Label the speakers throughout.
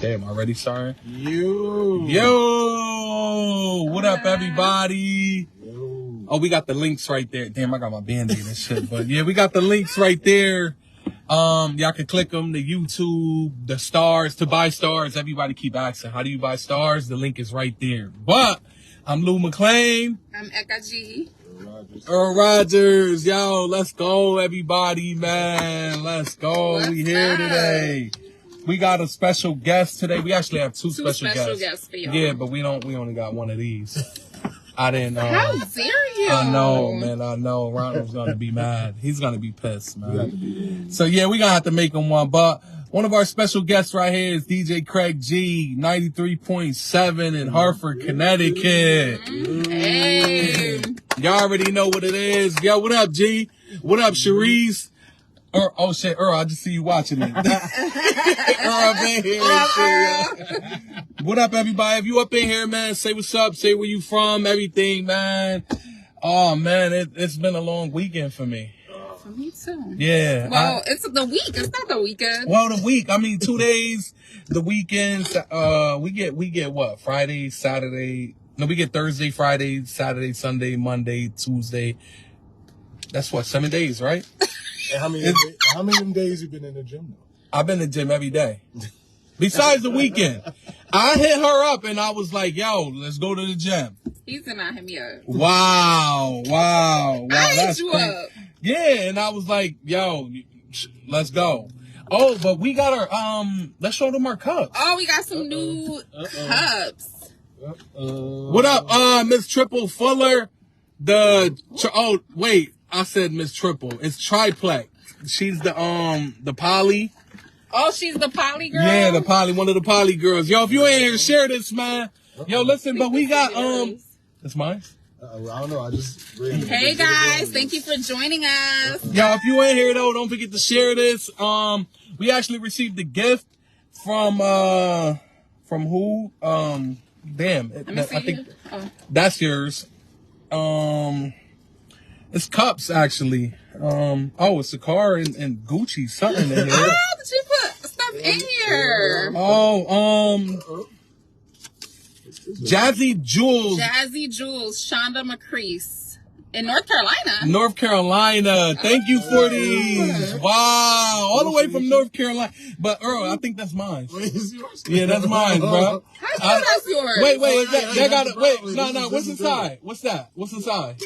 Speaker 1: Damn, already starting?
Speaker 2: You.
Speaker 1: Yo! What up, everybody?
Speaker 2: Yo.
Speaker 1: Oh, we got the links right there. Damn, I got my band aid and shit. But yeah, we got the links right there. Um, y'all can click them, the YouTube, the stars, to buy stars. Everybody keep asking, how do you buy stars? The link is right there. But I'm Lou McClain,
Speaker 3: I'm Eka G.
Speaker 2: Rogers.
Speaker 1: Earl Rogers. Yo, let's go, everybody, man. Let's go. we
Speaker 3: What's
Speaker 1: here
Speaker 3: up?
Speaker 1: today. We got a special guest today. We actually have two,
Speaker 3: Two special, guests for y'all.
Speaker 1: Yeah, but we don't. We only got one of these. I didn't.
Speaker 3: How
Speaker 1: Um,
Speaker 3: dare you?
Speaker 1: I know, man. I know. Ronald's gonna be mad. He's gonna be pissed,
Speaker 2: You got to
Speaker 1: man.
Speaker 2: be in.
Speaker 1: So yeah, we gonna have to make him one. But one of our special guests right here is DJ Craig G, ninety three point seven in Hartford, Connecticut.
Speaker 3: Hey.
Speaker 1: Y'all already know what it is. Yo, what up, G? What up, Cherise? Er, oh shit, Earl, I just see you watching me. Earl, up in here. and shit, yo. What up, everybody? If you up in here, man, say what's up, say where you from, everything, man. Oh man, it, it's been a long weekend for me.
Speaker 3: For me too.
Speaker 1: Yeah. I-
Speaker 3: Well, it's the week. It's not the weekend.
Speaker 1: well, the week. I mean, two days. The weekends. Uh, we get we get what Friday, Saturday. No, we get Thursday, Friday, Saturday, Sunday, Monday, Tuesday. That's what seven days, right?
Speaker 2: And how many? how many of them days you been in the gym though?
Speaker 1: I've been to gym every day. Besides the weekend, I hit her up and I was like, "Yo, let's go to the gym."
Speaker 3: He's not hit me up.
Speaker 1: Wow, wow, wow.
Speaker 3: I hit
Speaker 1: that's
Speaker 3: you
Speaker 1: crazy.
Speaker 3: up.
Speaker 1: Yeah, and I was like, "Yo, sh- let's go." Oh, but we got our um. Let's show them our cups.
Speaker 3: Oh, we got some new cups.
Speaker 2: Uh,
Speaker 1: What up, uh, Miss Triple Fuller? The tr- oh wait, I said Miss Triple. It's Triplex. She's the um the Polly.
Speaker 3: Oh, she's the poly girl.
Speaker 1: Yeah, the Polly, one of the Polly girls. Yo, if you ain't here, share this, man. Yo, listen, but we got um. That's mine.
Speaker 2: Uh, I don't know. I just. Read
Speaker 3: Hey guys, thank you for joining us.
Speaker 1: Yo, if you ain't here though, don't forget to share this. Um, we actually received a gift from uh from who? Um, damn,
Speaker 3: Let me see.
Speaker 1: I think
Speaker 3: oh.
Speaker 1: That's yours. Um, it's cups actually. Um, oh, it's a car and, and Gucci something in here.
Speaker 3: oh, did you put stuff in here?
Speaker 1: oh, um, Jazzy Jewels,
Speaker 3: Jazzy Jules, Shonda McCreese in North Carolina.
Speaker 1: North Carolina. Thank you for these. Wow, all the way from North Carolina. But Earl, I think that's mine. Yeah, that's mine, bro.
Speaker 3: How do you
Speaker 1: I-
Speaker 3: know that's yours?
Speaker 1: Uh, Wait, wait, is
Speaker 2: Oh, yeah,
Speaker 1: that, that got
Speaker 2: that's
Speaker 1: it.
Speaker 2: the
Speaker 1: Wait,
Speaker 2: problem.
Speaker 1: no,
Speaker 2: This
Speaker 1: no.
Speaker 2: is-
Speaker 1: What's
Speaker 2: this is it.
Speaker 1: inside? What's that? What's inside?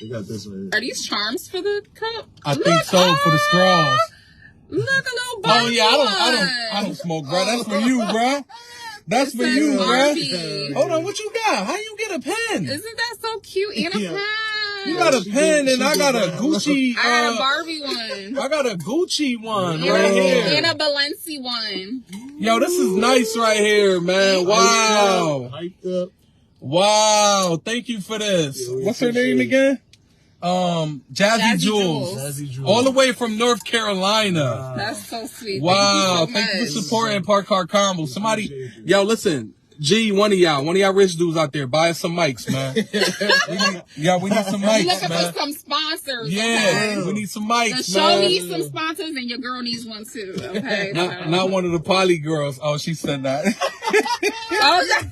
Speaker 2: We got this right
Speaker 3: Are
Speaker 2: here.
Speaker 3: these charms for the cup?
Speaker 1: I
Speaker 3: Look,
Speaker 1: think so for the
Speaker 3: ah,
Speaker 1: straws.
Speaker 3: Look, a little body
Speaker 1: Oh yeah, I don't, I don't, I
Speaker 3: one.
Speaker 1: don't smoke, bro. That's for you, bro. That's for
Speaker 3: Says
Speaker 1: you,
Speaker 3: Barbie.
Speaker 1: bro. Hold on, what you got? How you get a pen?
Speaker 3: Isn't that so cute? And a
Speaker 2: Yeah.
Speaker 3: pie.
Speaker 1: You got a
Speaker 2: She
Speaker 1: pen,
Speaker 2: did-
Speaker 1: and
Speaker 2: she
Speaker 1: I
Speaker 2: did
Speaker 1: got a
Speaker 2: that.
Speaker 1: Gucci.
Speaker 3: I got a
Speaker 1: uh,
Speaker 3: Barbie one.
Speaker 1: I got a Gucci one
Speaker 3: And
Speaker 1: right
Speaker 3: a-
Speaker 1: here.
Speaker 3: And a Balenci one.
Speaker 1: Yo, this is nice right here,
Speaker 3: Oh,
Speaker 1: man. Wow,
Speaker 2: Oh, Hyped up.
Speaker 1: wow. Thank you for this.
Speaker 2: Yeah, we
Speaker 1: What's her name
Speaker 2: appreciate
Speaker 1: again? Um, Jazzy
Speaker 3: Jazzy
Speaker 1: Jules,
Speaker 3: Jules.
Speaker 2: Jazzy Drew. Uh,
Speaker 1: all the way from North Carolina.
Speaker 3: That's so sweet.
Speaker 1: Wow,
Speaker 3: Thank you so
Speaker 1: thank you for
Speaker 3: much.
Speaker 1: supporting Park Car Combo. Somebody,
Speaker 2: appreciate you.
Speaker 1: yo, listen, G, one of y'all, one of y'all rich dudes out there, buy us some mics, man. we
Speaker 2: oh,
Speaker 1: need, yeah, we need some
Speaker 3: We
Speaker 1: mics,
Speaker 3: looking
Speaker 1: man.
Speaker 3: for some sponsors. okay?
Speaker 1: Yeah, we need some
Speaker 3: The
Speaker 1: mics,
Speaker 3: show
Speaker 1: man.
Speaker 3: needs some sponsors, and your girl needs one too. Okay.
Speaker 1: Not, not one of the poly girls. Oh, she said that.
Speaker 3: Oh,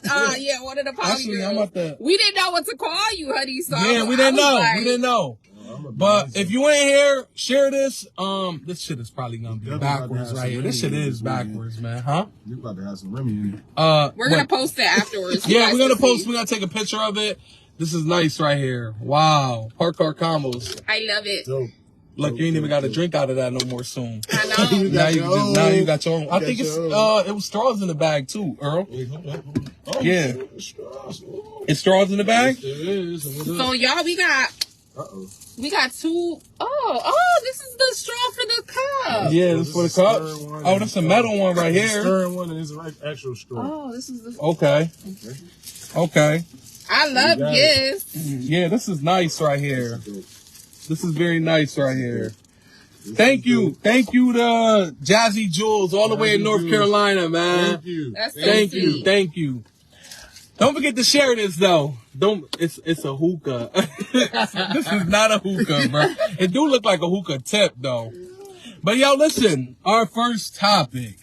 Speaker 3: uh, yeah, one of the poly
Speaker 1: Actually, I'm
Speaker 3: girls.
Speaker 1: about to.
Speaker 3: We didn't know what to call you, honey. So I
Speaker 1: Yeah,
Speaker 3: was-
Speaker 1: we
Speaker 3: I
Speaker 1: didn't
Speaker 3: was
Speaker 1: know.
Speaker 3: like-
Speaker 1: We didn't know.
Speaker 2: I'm a
Speaker 1: But
Speaker 2: bad
Speaker 1: if you ain't here, share this. Um, this shit is probably gonna be
Speaker 2: Definitely
Speaker 1: backwards
Speaker 2: about to
Speaker 1: right
Speaker 2: have
Speaker 1: here.
Speaker 2: some
Speaker 1: This shit
Speaker 2: money in
Speaker 1: is
Speaker 2: this weekend.
Speaker 1: backwards, man. Huh?
Speaker 2: You about to have some Remy in it.
Speaker 1: Uh,
Speaker 3: We're gonna
Speaker 1: what-
Speaker 3: post it afterwards. You
Speaker 1: Yeah,
Speaker 3: guys
Speaker 1: we're gonna
Speaker 3: can see.
Speaker 1: post. We're gonna take a picture of it. This is nice right here. Wow, park car combos.
Speaker 3: I love it.
Speaker 2: Dope.
Speaker 1: Look, you ain't even got a drink out of that no more. Soon.
Speaker 3: I
Speaker 2: You
Speaker 3: know.
Speaker 2: got
Speaker 1: Now you
Speaker 2: your
Speaker 1: just
Speaker 2: own.
Speaker 1: now you got your own. I
Speaker 2: You
Speaker 1: think
Speaker 2: got
Speaker 1: it's
Speaker 2: your own.
Speaker 1: uh it was straws in the bag too, Earl.
Speaker 2: Wait, hold on, hold on. Oh,
Speaker 1: Yeah.
Speaker 2: shit, it's straws. Oh.
Speaker 1: It's straws in the bag.
Speaker 2: Yes, it is. And what
Speaker 3: So
Speaker 2: else?
Speaker 3: y'all, we got
Speaker 2: Uh-oh.
Speaker 3: we got two oh oh this is the straw for the cup.
Speaker 1: Yeah, this is for the cup.
Speaker 2: Stirring one
Speaker 1: Oh,
Speaker 2: and
Speaker 1: that's a
Speaker 2: straw.
Speaker 1: metal one right
Speaker 2: It's
Speaker 1: here.
Speaker 2: Stirring one and it's like actual straw.
Speaker 3: Oh, this is the
Speaker 1: Okay. Okay.
Speaker 3: I love
Speaker 2: You got
Speaker 3: gifts.
Speaker 1: Yeah, this is nice right here. This is very nice right here. Thank you. Thank you to Jazzy Jules all the way in
Speaker 2: Jazzy
Speaker 1: North
Speaker 2: Jules.
Speaker 1: Carolina, man.
Speaker 2: Thank you.
Speaker 3: That's so
Speaker 1: Thank
Speaker 3: sweet.
Speaker 1: you, thank you. Don't forget to share this though. Don't it's it's a hookah. this is not a hookah, bro. It do look like a hookah tip though. But yo, listen, our first topic.